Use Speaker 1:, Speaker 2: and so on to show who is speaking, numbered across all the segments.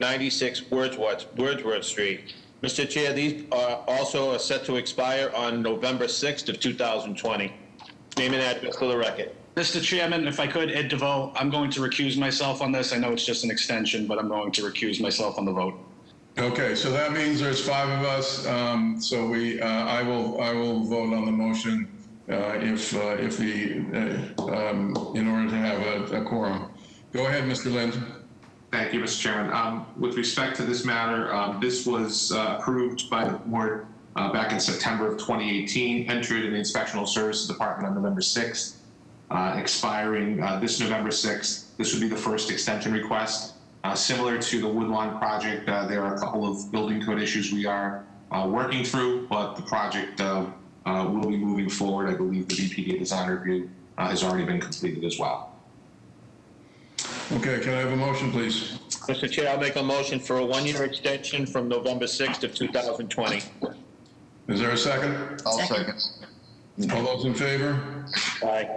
Speaker 1: 227-96 Wordsworth, Wordsworth Street. Mr. Chair, these are also are set to expire on November 6th of 2020. Name and address for the record.
Speaker 2: Mr. Chairman, if I could, Ed DeVoe, I'm going to recuse myself on this. I know it's just an extension, but I'm going to recuse myself on the vote.
Speaker 3: Okay, so that means there's five of us, um, so we, uh, I will, I will vote on the motion, uh, if, uh, if the, uh, um, in order to have a, a quorum. Go ahead, Mr. Lind.
Speaker 4: Thank you, Mr. Chairman. Um, With respect to this matter, um, this was uh, approved by the board uh, back in September of 2018, entered in the Inspectional Services Department on November 6th, uh, expiring uh, this November 6th. This would be the first extension request. Uh, Similar to the Woodlawn project, uh, there are a couple of building code issues we are uh, working through, but the project uh, uh, will be moving forward. I believe the BPD design review uh, has already been completed as well.
Speaker 3: Okay, can I have a motion, please?
Speaker 1: Mr. Chair, I'll make a motion for a one-year extension from November 6th of 2020.
Speaker 3: Is there a second?
Speaker 5: I'll second.
Speaker 3: All those in favor?
Speaker 1: Aye.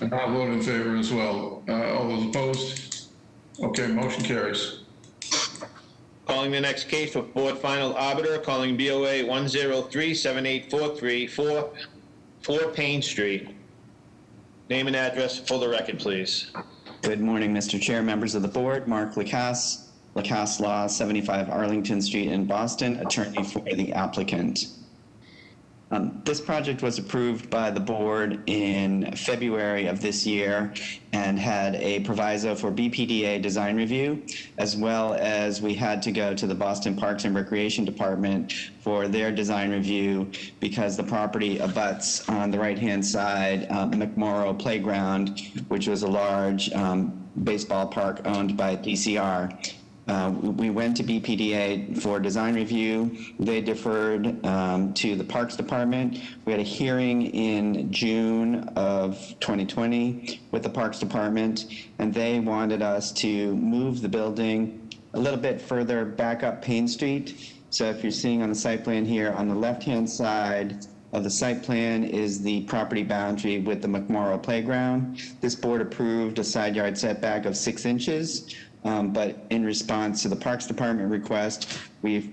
Speaker 3: And I'll vote in favor as well. Uh, all those opposed? Okay, motion carries.
Speaker 1: Calling the next case for Board Final Arbiter, calling BOA 103-78434, 4 Payne Street. Name and address for the record, please.
Speaker 6: Good morning, Mr. Chair, members of the board. Mark Lacasse, Lacasse Law, 75 Arlington Street in Boston, attorney for the applicant. Um, This project was approved by the board in February of this year and had a proviso for BPDA design review, as well as we had to go to the Boston Parks and Recreation Department for their design review because the property abuts on the right-hand side uh, McMorrow Playground, which was a large um, baseball park owned by DCR. Uh, We went to BPDA for design review. They deferred um, to the Parks Department. We had a hearing in June of 2020 with the Parks Department, and they wanted us to move the building a little bit further back up Payne Street. So if you're seeing on the site plan here, on the left-hand side of the site plan is the property boundary with the McMorro Playground. This board approved a side yard setback of six inches, um, but in response to the Parks Department request, we've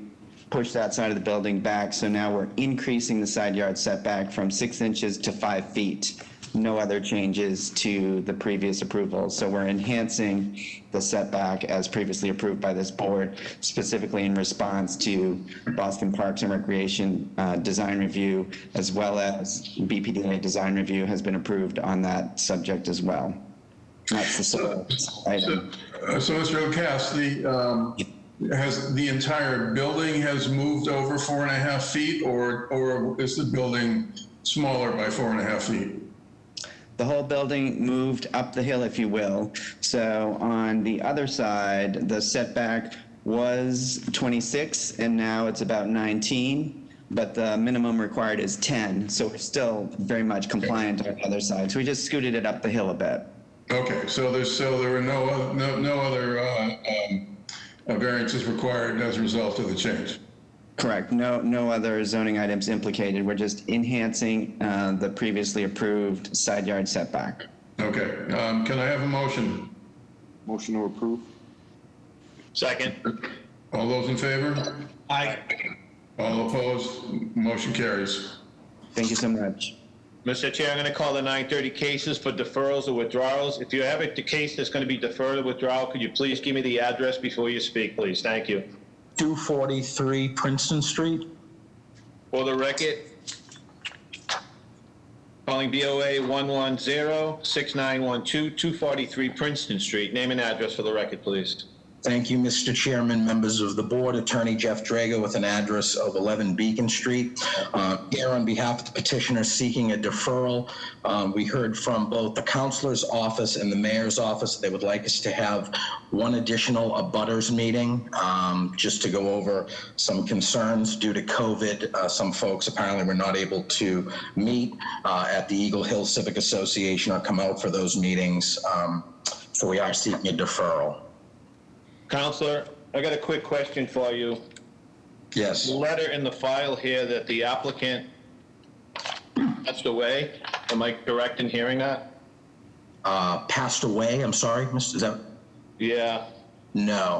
Speaker 6: pushed that side of the building back, so now we're increasing the side yard setback from six inches to five feet. No other changes to the previous approval, so we're enhancing the setback as previously approved by this board, specifically in response to Boston Parks and Recreation uh, Design Review, as well as BPDA Design Review has been approved on that subject as well. That's the sole item.
Speaker 3: Uh, So, Mr. O'Cast, the, um, has, the entire building has moved over four and a half feet, or, or is the building smaller by four and a half feet?
Speaker 6: the whole building moved up the hill, if you will. So on the other side, the setback was 26, and now it's about 19, but the minimum required is 10. So we're still very much compliant on the other side. So we just scooted it up the hill a bit.
Speaker 3: Okay, so there's, so there were no, oth- no, no other uh, um, uh, variances required as a result of the change?
Speaker 6: Correct. No, no other zoning items implicated. We're just enhancing uh, the previously approved side yard setback.
Speaker 3: Okay, um, can I have a motion?
Speaker 7: Motion to approve?
Speaker 1: Second.
Speaker 3: All those in favor?
Speaker 2: I,
Speaker 3: All opposed? Motion carries.
Speaker 6: Thank you so much.
Speaker 1: Mr. Chair, I'm going to call the 930 cases for deferrals or withdrawals. If you have a case that's going to be deferred or withdrawal, could you please give me the address before you speak, please? Thank you.
Speaker 8: 243 Princeton Street.
Speaker 1: For the record, calling BOA 110-6912, 243 Princeton Street. Name and address for the record, please.
Speaker 8: Thank you, Mr. Chairman, members of the board. Attorney Jeff Drago with an address of 11 Beacon Street. Uh, Here on behalf of the petitioner seeking a deferral, um, we heard from both the counselor's office and the mayor's office. They would like us to have one additional abutters meeting um, just to go over some concerns due to COVID. Uh, Some folks apparently were not able to meet uh, at the Eagle Hill Civic Association or come out for those meetings. Um, So we are seeking a deferral.
Speaker 1: Counselor, I got a quick question for you.
Speaker 8: Yes.
Speaker 1: The letter in the file here that the applicant passed away, am I correct in hearing that?
Speaker 8: uh, passed away. I'm sorry, Mr. Is that,
Speaker 1: Yeah.
Speaker 8: No.